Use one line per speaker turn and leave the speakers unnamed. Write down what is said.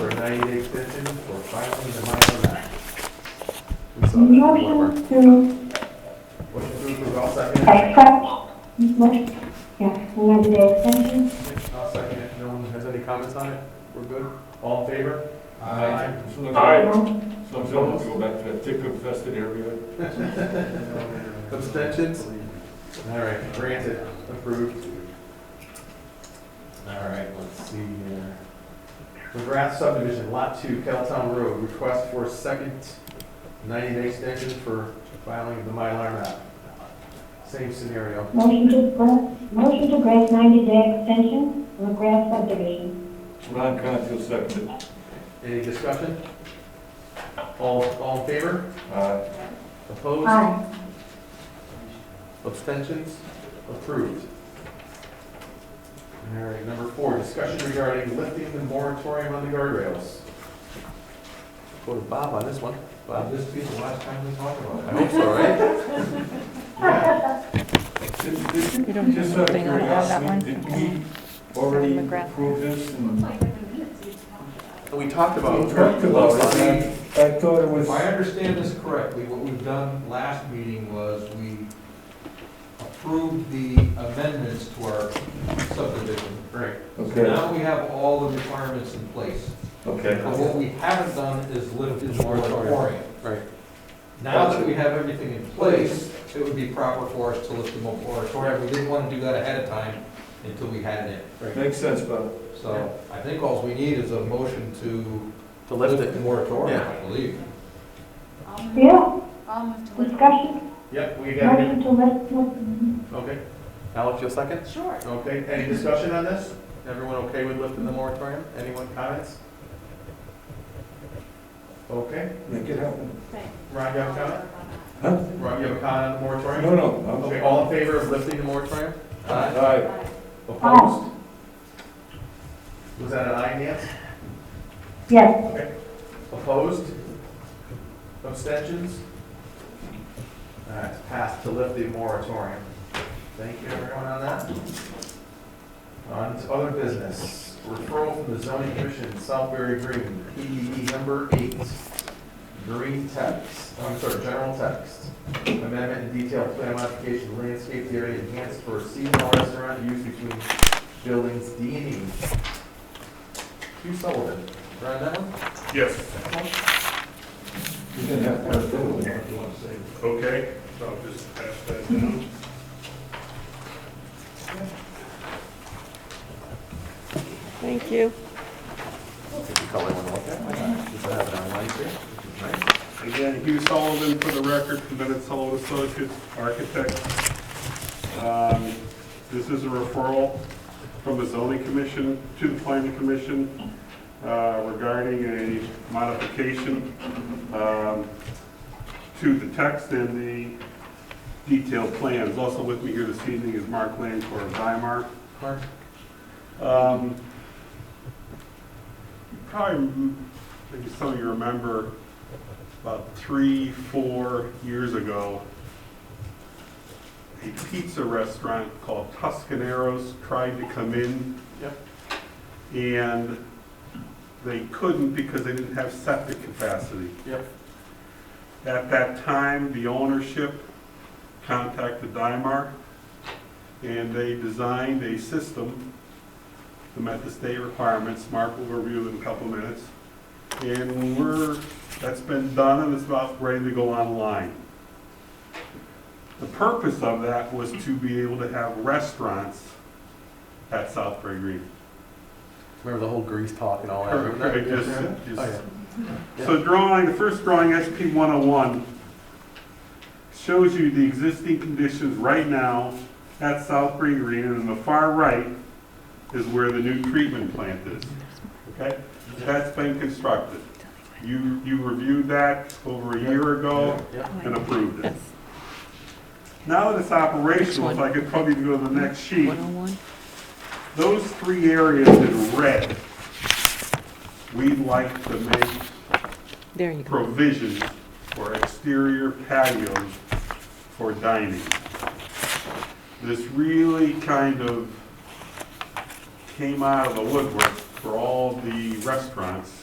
ninety-day extension for filing the minor map. We saw that in Weber.
Motion to
Motion to approve, I'll second it.
accept, motion, yeah, amend the extension.
I'll second it. No one has any comments on it? We're good? All in favor?
Aye.
So I'm
Aye.
going to go back to that tick infested area.
Abstentions? All right, granted, approved. All right, let's see here. McGrath subdivision, lot two, Keltown Road, request for second ninety-day extension for filing of the Mylar map. Same scenario.
Motion to grant, motion to grant ninety-day extension for the grass subdivision.
Ron Contil seconded.
Any discussion? All, all in favor?
Aye.
Opposed?
Aye.
Abstentions? Approved. All right, number four, discussion regarding lifting the moratorium on the guardrails. Go to Bob on this one.
Well, this will be the last time we talk about
I hope so, right? Yeah.
Did- did-
You don't
Just
have
out of
anything on that one?
curiosity, did we already approve this and?
We talked about.
We talked about it.
We-
I thought it
it. If I understand this correctly, what we've done last meeting was we approved the amendments to our subdivision.
Right,
Okay,
Now we have all the requirements in place.
okay.
But what we haven't done is lifted the moratorium.
right.
Now that we have everything in place, it would be proper for us to lift the moratorium. We didn't want to do that ahead of time until we had it
Makes sense, Bob.
in. So I think all we need is a motion to
To lift
lift the
it.
moratorium,
Yeah.
I believe.
I'll move-
Yeah,
I'll move to lift.
discussion,
Yep, we got it.
motion to lift,
Okay. Alex, you'll second?
Sure.
Okay, any discussion on this? Everyone okay with lifting the moratorium? Anyone comments? Okay,
Make it happen.
Ron, you have a comment?
Huh?
Ron, you have a comment on the moratorium?
No, no.
Okay, all in favor of lifting the moratorium?
Aye.
Aye.
Opposed? Was that an aye, Nancy?
yes,
Opposed? Abstentions? All right, it's passed to lift the moratorium. Thank you everyone on that. On to other business, referral from the zoning commission, Southbury Green, PDD number eight. Green text, I'm sorry, general text. Amendment and detailed plan modification, landscape area enhanced for seasonal restaurant use between buildings D and E. Hugh Sullivan, right on that one?
Yes,
You didn't have to have a vote, if you want to say.
okay, so I'll just pass that down.
Thank you.
Again, Hugh Sullivan, for the record, from Bennett Sullivan Associates, architect. Um, This is a referral from the zoning commission to the planning commission uh, regarding a modification um, to the text and the detailed plans. Also with me here this evening is Mark Lancor of Dymark.
Mark?
Um, Probably, maybe some of you remember, about three, four years ago, a pizza restaurant called Tuscaneros tried to come in.
Yep.
And they couldn't because they didn't have septic capacity.
Yep.
At that time, the ownership contacted Dymark, and they designed a system that met the state requirements. Mark will review in a couple minutes. And we're, that's been done, and it's about ready to go online. The purpose of that was to be able to have restaurants at Southbury Green.
Remember the whole grease talk and all that?
Perfect,
remember that?
just- just-
Oh, yeah.
So drawing, the first drawing, SP 101, shows you the existing conditions right now at Southbury Green, and on the far right is where the new treatment plant is. Okay? That's been constructed. You, you reviewed that over a year ago
Yep.
and approved it.
That's
Now that it's operational, if I could probably go to the next sheet, those three areas in red, we'd like to make
There you go.
provision for exterior patios for dining. This really kind of came out of the woodwork for all the restaurants